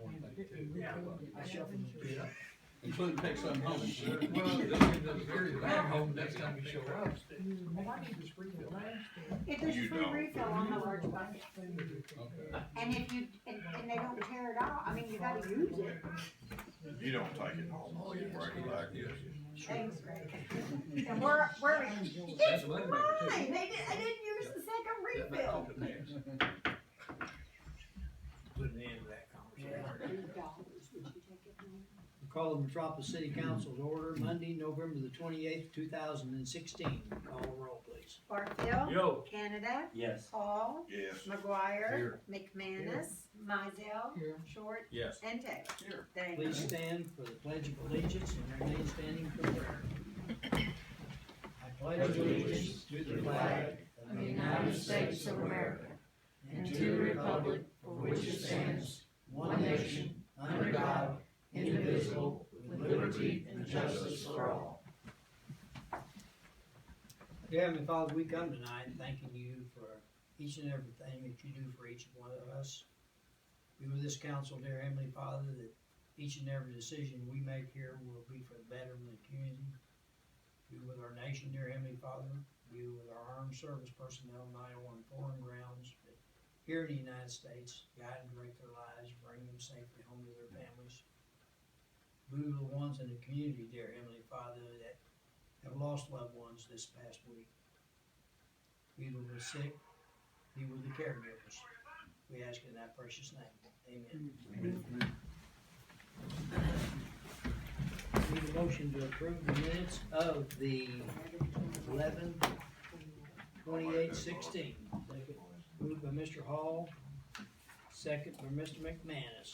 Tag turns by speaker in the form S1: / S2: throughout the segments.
S1: too.
S2: I shuffled the two up.
S3: Including next time home.
S1: Well,
S3: Don't get those very bad home next time
S1: we
S3: you show up.
S2: Well, I need to read the last thing.
S4: If there's
S5: You
S4: a free
S5: don't.
S4: refill on the large bucket,
S3: Okay.
S4: and if you, and, and they don't tear it out, I mean, you gotta use it.
S5: You don't take it home, you bring it back, yes.
S4: Thanks, Greg. And we're, we're, it's
S3: a moneymaker,
S4: mine,
S3: too.
S4: they didn't, I didn't use the second refill.
S3: That makes it
S1: Put an end to that conversation.
S2: Call the Metropolis City Council's order Monday, November the twenty-eighth, two thousand and sixteen. Call the roll, please.
S4: Barfield.
S1: Yo.
S4: Canada.
S6: Yes.
S4: Paul.
S5: Yes.
S4: McGuire.
S3: Here.
S4: McManus. Mizell.
S2: Here.
S4: Short.
S3: Yes.
S4: And Taylor.
S5: Here.
S4: Thank you.
S2: Please stand for the Pledge of Allegiance and remain standing for prayer. I pledge allegiance to the flag
S7: of the United States of America, and to the republic for which it stands, one nation, under God, indivisible, with liberty and justice for all.
S2: Dear Heavenly Father, we come tonight thanking you for each and everything that you do for each one of us. Be with this council, dear Heavenly Father, that each and every decision we make here will be for the betterment of the community. Be with our nation, dear Heavenly Father. Be with our armed service personnel, not only on foreign grounds, but here in the United States. Guide and direct their lives, bring them safely home to their families. Be with the ones in the community, dear Heavenly Father, that have lost loved ones this past week. Be with the sick, be with the caregivers. We ask in that precious name. Amen. Need a motion to approve the minutes of the eleven twenty-eight sixteen. Moved by Mr. Hall, second by Mr. McManus.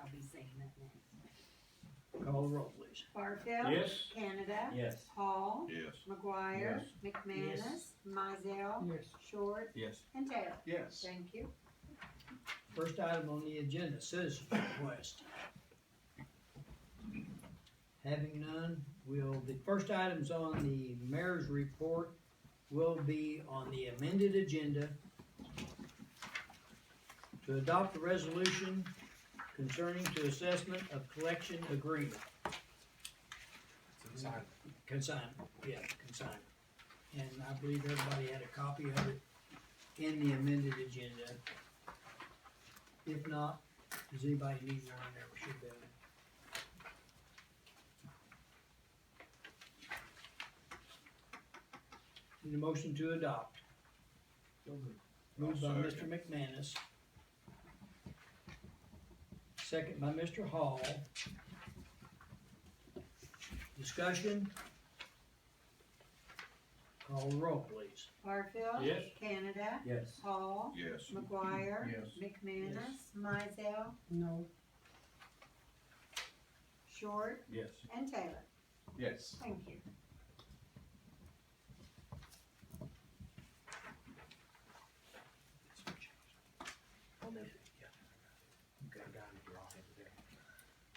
S4: I'll be saying that next.
S2: Call the roll, please.
S4: Barfield.
S1: Yes.
S4: Canada.
S6: Yes.
S4: Paul.
S5: Yes.
S4: McGuire. McManus. Mizell.
S2: Yes.
S4: Short.
S3: Yes.
S4: And Taylor.
S5: Yes.
S4: Thank you.
S2: First item on the agenda, citizens request. Having none, will, the first items on the mayor's report will be on the amended agenda to adopt a resolution concerning to assessment of collection agreement. Consignment, yeah, consignment. And I believe everybody had a copy of it in the amended agenda. If not, does anybody need one there, we should be. able to- Need a motion to adopt. Moved by
S5: I'll
S2: Mr.
S5: second.
S2: McManus. Second by Mr. Hall. Discussion? Call the roll, please.
S4: Barfield.
S1: Yes.
S4: Canada.
S6: Yes.
S4: Paul.
S5: Yes.
S4: McGuire.
S3: Yes.
S4: McManus. Mizell.
S2: No.
S4: Short.
S3: Yes.
S4: And Taylor.
S3: Yes.
S4: Thank you.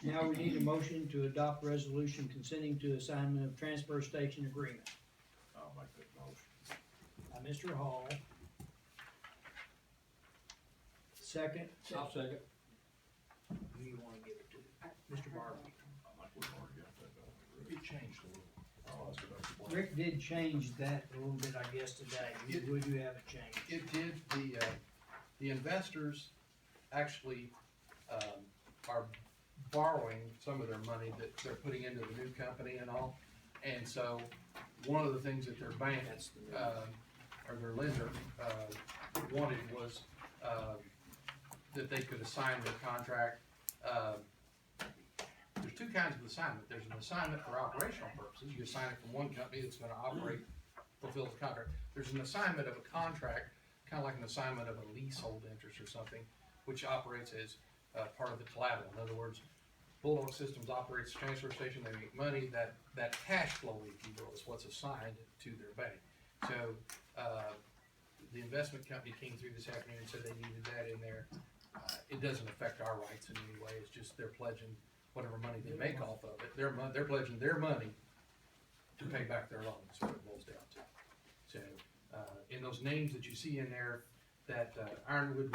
S2: Now we need a motion to adopt resolution consenting to assignment of transfer station agreement
S5: I'll make that motion.
S2: by Mr. Hall. Second,
S3: I'll second.
S2: who you wanna give it to? Mr. Barber.
S5: I think we've already got that done.
S3: It changed a little.
S5: Oh, that's what I was-
S2: Rick did change that a little bit, I guess, today. You- Would you have a change?
S8: it did, the, uh, the investors actually, um, are borrowing some of their money that they're putting into the new company and all. And so, one of the things that their bank,
S2: That's the new.
S8: um, or their lender, uh, wanted was, um, that they could assign their contract, um, there's two kinds of assignment, there's an assignment for operational purposes, you assign it from one company that's gonna operate, fulfill the contract. There's an assignment of a contract, kinda like an assignment of a leasehold interest or something, which operates as, uh, part of the collateral, in other words, Bulldog Systems operates the transfer station, they make money, that, that cash flow, if you will, is what's assigned to their bank. So, uh, the investment company came through this afternoon and said they needed that in there. Uh, It doesn't affect our rights in any way, it's just they're pledging whatever money they make off of it, they're mon- they're pledging their money to pay back their loan, is what it boils down to. So, uh, in those names that you see in there, that uh, Ironwood